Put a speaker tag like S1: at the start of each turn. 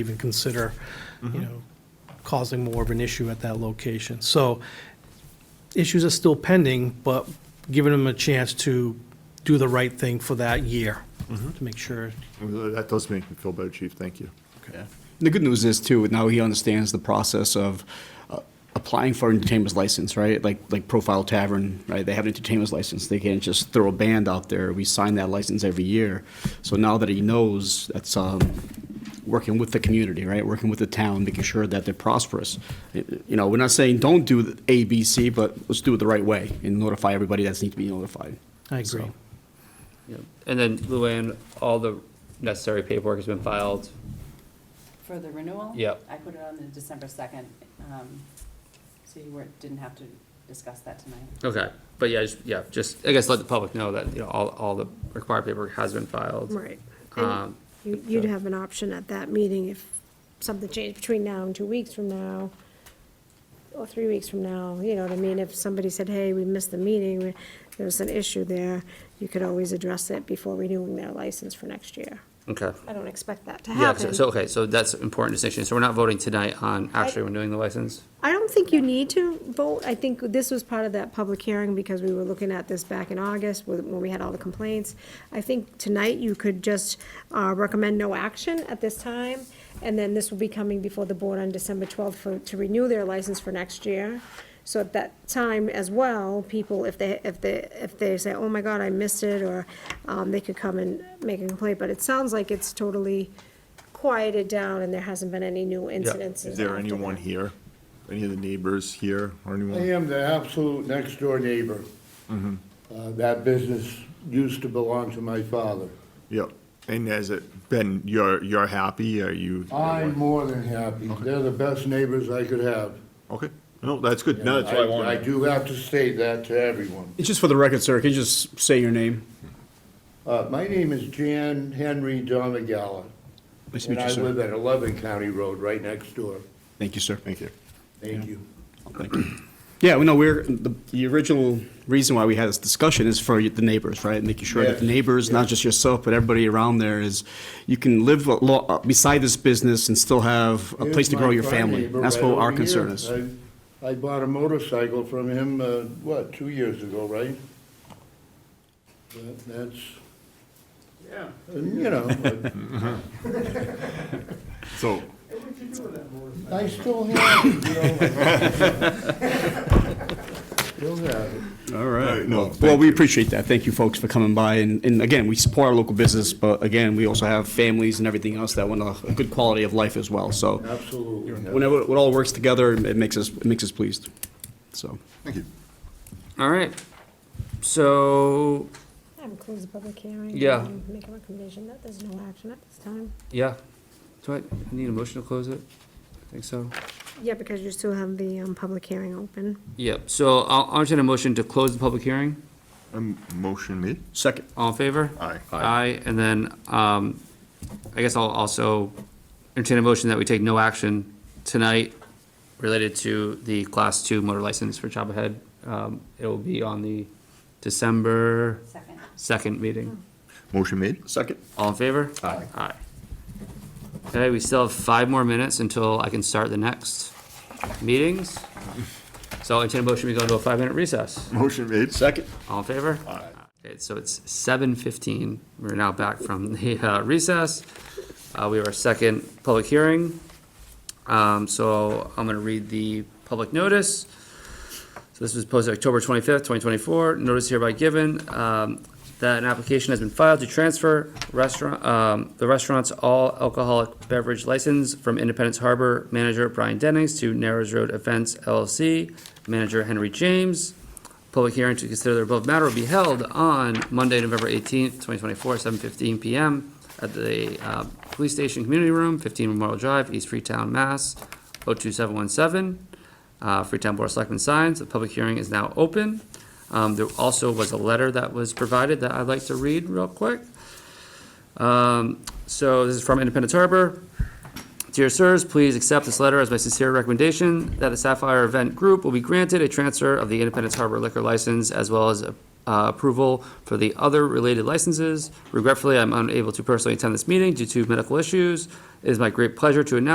S1: even consider, you know, causing more of an issue at that location. So issues are still pending, but giving them a chance to do the right thing for that year, to make sure.
S2: That does make me feel better, Chief, thank you.
S3: Yeah.
S4: The good news is too, now he understands the process of uh, applying for an entertainment's license, right? Like, like Profile Tavern, right? They have an entertainment's license. They can't just throw a band out there. We sign that license every year. So now that he knows, that's, um, working with the community, right? Working with the town, making sure that they're prosperous. You know, we're not saying don't do the A, B, C, but let's do it the right way and notify everybody that's need to be notified.
S1: I agree.
S4: So-
S3: Yeah. And then Luann, all the necessary paperwork has been filed.
S5: For the renewal?
S3: Yep.
S5: I put it on the December second, um, so you weren't, didn't have to discuss that tonight.
S3: Okay. But yeah, just, yeah, just, I guess let the public know that, you know, all, all the required paperwork has been filed.
S6: Right.
S3: Um,
S6: And you- you'd
S3: so-
S6: have an option at that meeting if something changed between now and two weeks from now, or three weeks from now, you know what I mean? If somebody said, hey, we missed the meeting, we- there was an issue there, you could always address it before renewing their license for next year.
S3: Okay.
S6: I don't expect that to
S3: Yeah, so,
S6: happen.
S3: so, okay, so that's an important distinction. So we're not voting tonight on actually renewing the license?
S6: I don't think you need to vote. I think this was part of that public hearing because we were looking at this back in August with- when we had all the complaints. I think tonight you could just uh, recommend no action at this time, and then this will be coming before the board on December 12th for- to renew their license for next year. So at that time as well, people, if they, if they, if they say, oh my God, I missed it, or um, they could come and make a complaint. But it sounds like it's totally quieted down and there hasn't been any new incidences.
S2: Is there
S6: after
S2: anyone
S6: that.
S2: here? Any of the neighbors here or
S7: I
S2: anyone?
S7: am the absolute next door neighbor. Uh, That business used to belong to my father.
S2: Yep. And has it been, you're, you're happy? Are you?
S7: I'm more than happy. They're the best neighbors I could have.
S2: Okay. No, that's good. No, that's what I
S7: I
S2: wanted.
S7: do have to state that to everyone.
S4: It's just for the record, sir, can you just say your name?
S7: Uh, My name is Jan Henry Domigala,
S4: Nice to
S7: and
S4: meet you,
S7: I live
S4: sir.
S7: at 11 County Road, right next door.
S4: Thank you, sir.
S2: Thank you.
S7: Thank you.
S4: Yeah, well, no, we're, the, the original reason why we had this discussion is for the neighbors, right? Making sure that the
S7: Yes,
S4: neighbors, not just yourself, but everybody around there is, you can live a lo- uh, beside this business and still have a place to grow your
S7: Here's my front
S4: family.
S7: neighbor
S4: That's
S7: right
S4: what
S7: over
S4: our
S7: here.
S4: concern is.
S7: I- I bought a motorcycle from him, uh, what, two years ago, right? That- That's,
S8: Yeah.
S7: and, you know, but
S2: So,
S8: What'd you do with that motorcycle?
S7: I still have it, you know. Still have it.
S4: All
S2: right,
S4: right.
S2: no,
S4: Well,
S2: thank
S4: well, we
S2: you.
S4: appreciate that. Thank you, folks, for coming by. And, and again, we support our local business, but again, we also have families and everything else that want a, a good quality of life as well. So
S7: Absolutely.
S4: whenever it all works together, it makes us, it makes us pleased. So,
S2: thank you.
S3: All right. So,
S6: I would close the public hearing.
S3: Yeah.
S6: and Make a recommendation that there's no action at this time.
S3: yeah. Do I, I need a motion to close it? I think so.
S6: Yeah, because you still have the, um, public hearing open.
S3: Yep, so I'll, I'll entertain a motion to close the public hearing.
S2: Um, motion made?
S4: second.
S3: All in favor?
S2: Aye.
S3: Aye, and then, um, I guess I'll also entertain a motion that we take no action tonight related to the class two motor license for Chapel Head. Um, it will be on the December
S5: Second.
S3: second meeting.
S2: Motion made?
S4: Second.
S3: All in favor? Aye. Aye. Okay, we still have five more minutes until I can start the next meetings. So I'll entertain a motion, we go into a five-minute recess.
S2: Motion made?
S4: Second.
S3: All in favor? Aye. Okay, so it's seven fifteen. We're now back from the uh, recess. Uh, we have our second public hearing. Um, so I'm gonna read the public notice. So this was posted October twenty-fifth, twenty twenty-four. Notice hereby given, um, that an application has been filed to transfer restaurant, um, the restaurant's all alcoholic beverage license from Independence Harbor manager Brian Dennings to Narrows Road Events LLC, manager Henry James. Public hearing to consider the above matter will be held on Monday, November eighteenth, twenty twenty-four, seven fifteen PM at the, uh, Police Station Community Room, fifteen Memorial Drive, East Freetown, Mass, oh two seven one seven. Uh, Freetown Board of Selectmen signs, the public hearing is now open. Um, there also was a letter that was provided that I'd like to read real quick. Um, so this is from Independence Harbor. Dear sirs, please accept this letter as my sincere recommendation that the Sapphire Event Group will be granted a transfer of the Independence Harbor liquor license as well as a uh, approval for the other related licenses. Regretfully, I'm unable to personally attend this meeting due to medical issues. It is my great pleasure to announce